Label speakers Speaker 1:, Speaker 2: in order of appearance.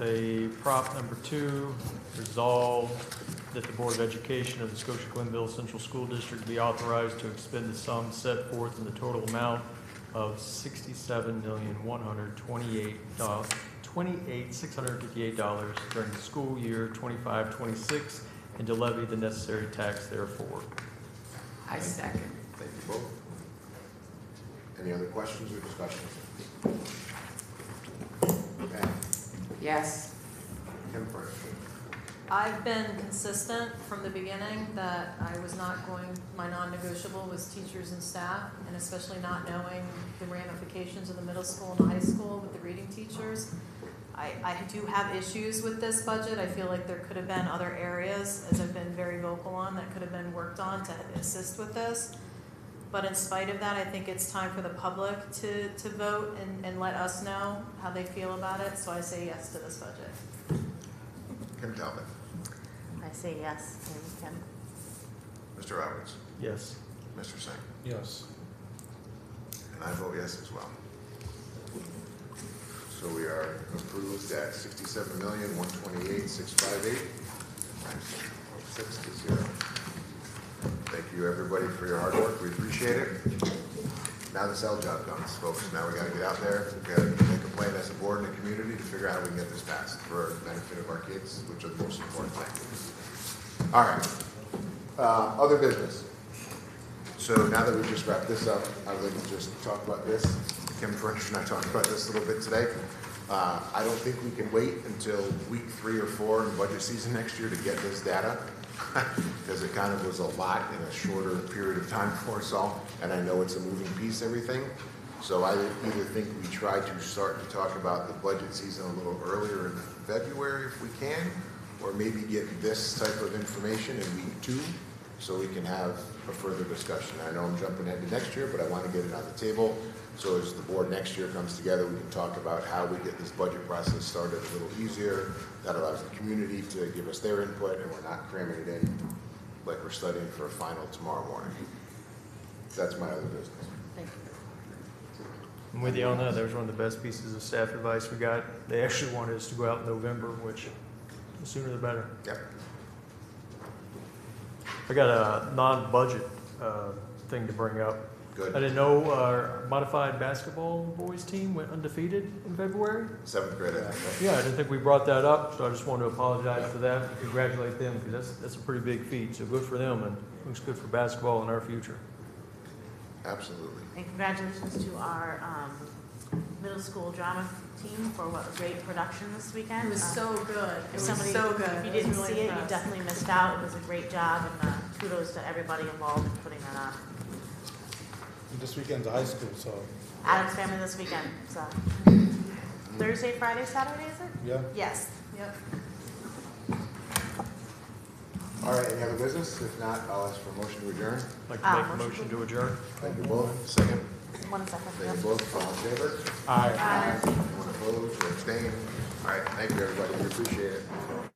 Speaker 1: a prop number two, resolve that the Board of Education of the Scotia Glenville Central School District be authorized to expend the sum set forth in the total amount of sixty-seven million, one hundred twenty-eight dollars, twenty-eight, six hundred fifty-eight dollars during the school year twenty-five, twenty-six, and to levy the necessary tax therefore.
Speaker 2: I second.
Speaker 3: Thank you both. Any other questions or discussions? Pam,
Speaker 2: Yes.
Speaker 3: Kim first.
Speaker 4: I've been consistent from the beginning that I was not going, my non-negotiable was teachers and staff, and especially not knowing the ramifications of the middle school and high school with the reading teachers. I, I do have issues with this budget. I feel like there could have been other areas, as I've been very vocal on, that could have been worked on to assist with this. But in spite of that, I think it's time for the public to, to vote and, and let us know how they feel about it, so I say yes to this budget.
Speaker 3: Kim Talbot,
Speaker 5: I say yes to Kim.
Speaker 3: Mr. Roberts,
Speaker 1: Yes.
Speaker 3: Mr. Singh,
Speaker 6: Yes.
Speaker 3: and I vote yes as well. So we are approved at sixty-seven million, one twenty-eight, six five eight, six to zero. Thank you, everybody, for your hard work. We appreciate it. Now the sell job comes, folks. Now we gotta get out there, we gotta make a plan as a board and a community to figure out how we can get this passed for the benefit of our kids, which are the most important thing. All right, uh, other business. So now that we've just wrapped this up, I would just talk about this. Kim French and I talked about this a little bit today. Uh, I don't think we can wait until week three or four in budget season next year to get this data, because it kind of was a lot in a shorter period of time for us all, and I know it's a moving piece, everything. So I either think we try to start to talk about the budget season a little earlier in February if we can, or maybe get this type of information in week two, so we can have a further discussion. I know I'm jumping ahead to next year, but I want to get it on the table, so as the board next year comes together, we can talk about how we get this budget process started a little easier. That allows the community to give us their input, and we're not cramming it in like we're studying for a final tomorrow morning. That's my other business.
Speaker 5: Thank you.
Speaker 1: I'm with you on that. That was one of the best pieces of staff advice we got. They actually wanted us to go out in November, which the sooner the better.
Speaker 3: Yep.
Speaker 1: I got a non-budget uh, thing to bring up. I
Speaker 3: Good.
Speaker 1: didn't know our modified basketball boys team went undefeated in February.
Speaker 3: Seventh grade, I think. right?
Speaker 1: Yeah, I didn't think we brought that up, so I just wanted to apologize for that and congratulate them because that's, that's a pretty big feat. So good for them and looks good for basketball in our future.
Speaker 3: Absolutely.
Speaker 5: And congratulations to our um, middle school drama team for what a great production this weekend.
Speaker 4: It was
Speaker 5: Um,
Speaker 4: so good. It
Speaker 5: If
Speaker 4: was
Speaker 5: somebody,
Speaker 4: so good.
Speaker 5: if you
Speaker 4: I was
Speaker 5: didn't
Speaker 4: really
Speaker 5: see it, you
Speaker 4: impressed.
Speaker 5: definitely missed out. It was a great job, and uh, kudos to everybody involved in putting that on.
Speaker 6: This weekend's high school, so,
Speaker 5: Adam's family this weekend, so. Thursday, Friday, Saturday, is it?
Speaker 6: yeah.
Speaker 5: Yes.
Speaker 4: Yep.
Speaker 3: All right, any other business? If not, I'll ask for a motion to adjourn.
Speaker 1: I'd Like
Speaker 5: Ah,
Speaker 1: to make a
Speaker 5: motion
Speaker 1: motion to adjourn.
Speaker 3: Thank you both. Second,
Speaker 5: One second.
Speaker 3: thank you both. All in favor?
Speaker 6: All right.
Speaker 3: Anyone opposed or abstained? All right, thank you, everybody. We appreciate it.